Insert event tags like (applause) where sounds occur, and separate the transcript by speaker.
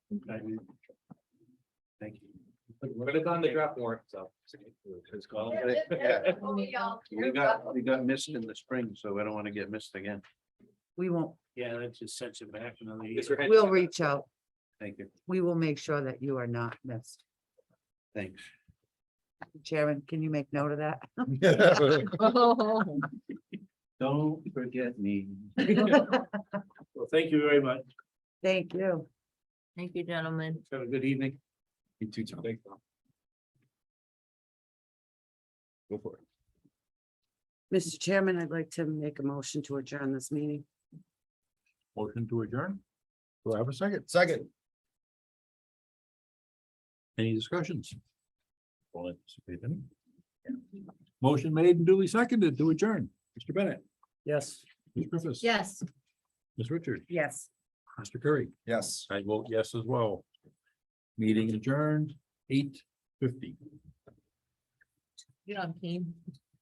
Speaker 1: Thank you.
Speaker 2: But it's on the draft warrant, so.
Speaker 1: It's called-
Speaker 3: Yep, yep, yep. We'll meet y'all.
Speaker 1: We got, we got missed in the spring, so I don't want to get missed again.
Speaker 4: We won't,
Speaker 1: Yeah, that just sets it back another
Speaker 2: Is there any-
Speaker 4: we'll reach out.
Speaker 1: Thank you,
Speaker 4: We will make sure that you are not missed.
Speaker 2: (laughs)
Speaker 1: thanks.
Speaker 4: Chairman, can you make note of that? (laughs)
Speaker 1: Don't forget me.
Speaker 5: Well, thank you very much.
Speaker 4: Thank you.
Speaker 6: (laughs) Thank you, gentlemen.
Speaker 1: Have a good evening.
Speaker 2: You too, Tom. Thanks, Tom. Go for it.
Speaker 4: Mr. Chairman, I'd like to make a motion to adjourn this meeting.
Speaker 5: Motion to adjourn. Do I have a second?
Speaker 2: Second.
Speaker 5: Any discussions? Don't anticipate any. Motion made and duly seconded to adjourn. Mr. Bennett,
Speaker 1: Yes.
Speaker 5: Ms. Griffiths.
Speaker 6: Yes.
Speaker 5: Ms. Richard,
Speaker 4: Yes.
Speaker 5: Mr. Curry.
Speaker 2: Yes.
Speaker 5: I vote yes as well. Meeting adjourned, eight fifty.
Speaker 6: You're on team.